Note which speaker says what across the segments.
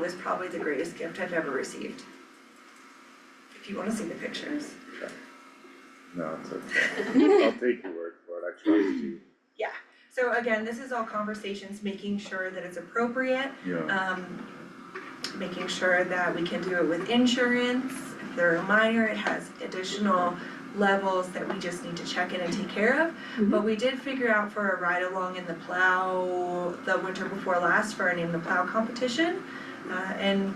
Speaker 1: was probably the greatest gift I've ever received. If you wanna see the pictures.
Speaker 2: No, it's okay. I'll take your word for it. I trust you.
Speaker 1: So again, this is all conversations, making sure that it's appropriate,
Speaker 2: Yeah.
Speaker 1: um, making sure that we can do it with insurance. If they're a minor, it has additional levels that we just need to check in and take care of. But we did figure out for a ride along in the plow, the winter before last for our name the plow competition. Uh, and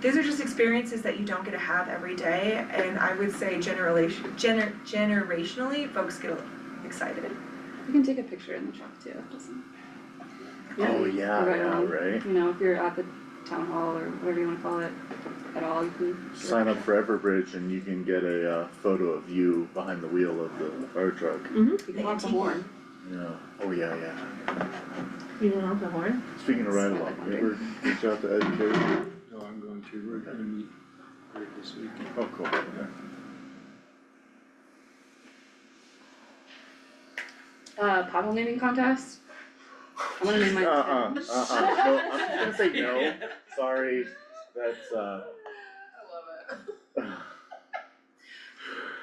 Speaker 1: these are just experiences that you don't get to have every day. And I would say generation, gener- generationally, folks get excited.
Speaker 3: You can take a picture in the truck too, it doesn't.
Speaker 2: Oh, yeah,
Speaker 3: Right
Speaker 2: yeah,
Speaker 3: on.
Speaker 2: right?
Speaker 3: You know, if you're at the town hall or whatever you wanna call it at all, you can.
Speaker 2: Sign up for Everbridge and you can get a uh photo of you behind the wheel of the fire truck.
Speaker 3: You can honk the horn.
Speaker 2: Yeah, oh yeah, yeah.
Speaker 4: You don't have the horn?
Speaker 2: Speaking of ride along,
Speaker 3: Seven
Speaker 2: you ever reach out to Ed Carey?
Speaker 5: No, I'm going to, we're gonna meet later this week.
Speaker 2: Oh, cool, yeah.
Speaker 3: Uh, pothole naming contest? I'm gonna name mine.
Speaker 2: Uh-uh, uh-uh, no, I'm just gonna say no, sorry, that's uh. I love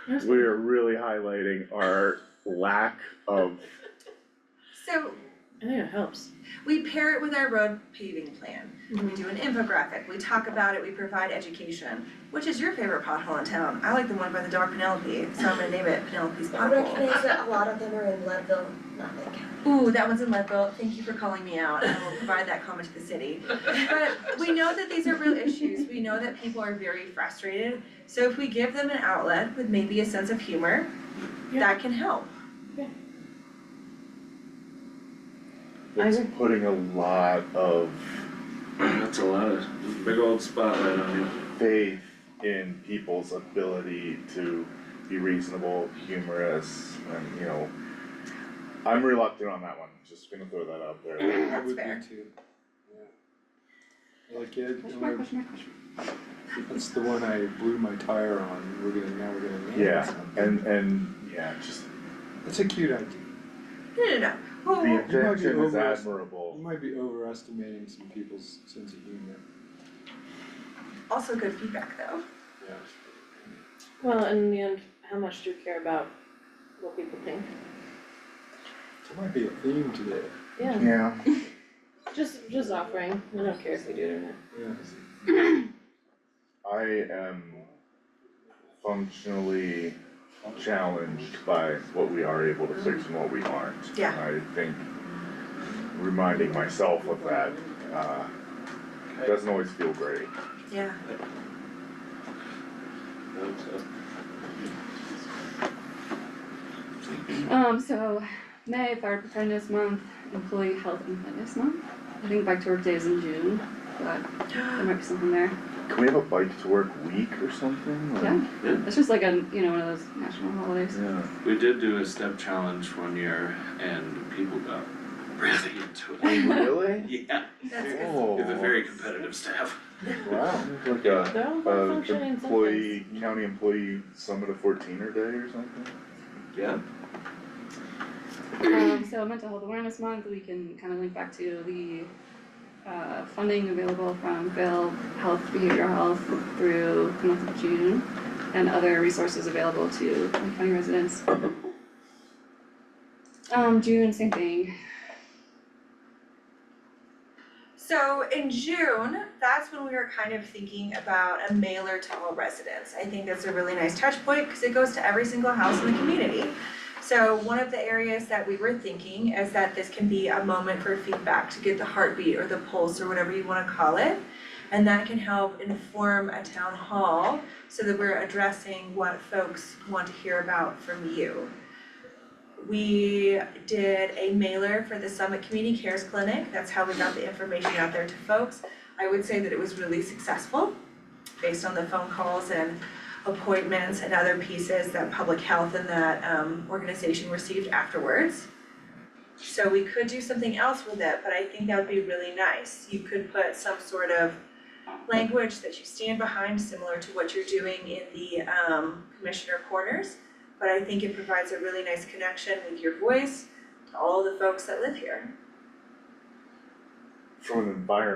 Speaker 2: it. We are really highlighting our lack of,
Speaker 1: So
Speaker 4: I think it helps.
Speaker 1: we pair it with our road paving plan. We do an infographic, we talk about it, we provide education. Which is your favorite pothole in town? I like the one by the dog Penelope, so I'm gonna name it Penelope's
Speaker 6: I
Speaker 1: Pothole.
Speaker 6: recognize that a lot of them are in Leadville, not Lake County.
Speaker 1: Ooh, that one's in Leadville, thank you for calling me out, I will provide that comment to the city. But we know that these are real issues, we know that people are very frustrated. So if we give them an outlet with maybe a sense of humor, that can help.
Speaker 4: I
Speaker 2: it's putting a lot of
Speaker 7: That's a lot of, big old spotlight on you.
Speaker 2: faith in people's ability to be reasonable, humorous, and you know. I'm reluctant on that one, just gonna throw that out there.
Speaker 5: I would be
Speaker 1: fair.
Speaker 5: too, yeah. Like, yeah,
Speaker 3: Question
Speaker 5: don't
Speaker 3: mark,
Speaker 5: worry,
Speaker 3: question mark, question
Speaker 5: that's the one I blew my tire on, we're gonna, now we're gonna name it
Speaker 2: Yeah,
Speaker 5: something.
Speaker 2: and and yeah, just
Speaker 5: It's a cute idea,
Speaker 1: No, no, no, Well,
Speaker 2: the
Speaker 1: well,
Speaker 2: intention is
Speaker 5: over-
Speaker 2: admirable.
Speaker 5: you might be overestimating some people's sense of humor,
Speaker 1: also good feedback though.
Speaker 5: yeah.
Speaker 4: Well, and in the end, how much do you care about what people think?
Speaker 5: There might be a theme today,
Speaker 4: Yeah,
Speaker 2: Yeah.
Speaker 4: just, just offering, I don't care if we do it or not.
Speaker 5: yeah.
Speaker 2: I am functionally challenged by what we are able to fix and what we aren't.
Speaker 1: Yeah.
Speaker 2: I think reminding myself of that, uh, doesn't always feel great.
Speaker 1: Yeah.
Speaker 3: mark. Um, so May, Fire Preparedness Month, Employee Health and Fitness Month. I think Bike to Work Day is in June, but there might be something there.
Speaker 2: Can we have a bike to work week or something? Like-
Speaker 3: Yeah, it's just like a, you know, one of those national holidays.
Speaker 2: Yeah.
Speaker 7: We did do a step challenge one year and people got really into it.
Speaker 2: Really?
Speaker 7: Yeah,
Speaker 1: That's good.
Speaker 2: Oh.
Speaker 7: we have a very competitive staff.
Speaker 2: Wow, like a,
Speaker 4: No, we're
Speaker 2: uh,
Speaker 4: functioning in some things.
Speaker 2: employee, county employee summit of fourteener day or something?
Speaker 7: Yeah.
Speaker 3: Um, so mental health awareness month, we can kind of link back to the uh, funding available from Bill Health, Behavioral Health through the month of June, and other resources available to Lake county residents. Um, June, same thing.
Speaker 1: So in June, that's when we were kind of thinking about a mailer to all residents. I think that's a really nice touch point because it goes to every single house in the community. So one of the areas that we were thinking is that this can be a moment for feedback to get the heartbeat or the pulse or whatever you wanna call it. And that can help inform a town hall so that we're addressing what folks want to hear about from you. We did a mailer for the Summit Community Cares Clinic, that's how we got the information out there to folks. I would say that it was really successful based on the phone calls and appointments and other pieces that public health and that um organization received afterwards. So we could do something else with it, but I think that would be really nice. You could put some sort of language that you stand behind, similar to what you're doing in the um commissioner corners but I think it provides a really nice connection with your voice to all the folks that live here.
Speaker 2: from an environment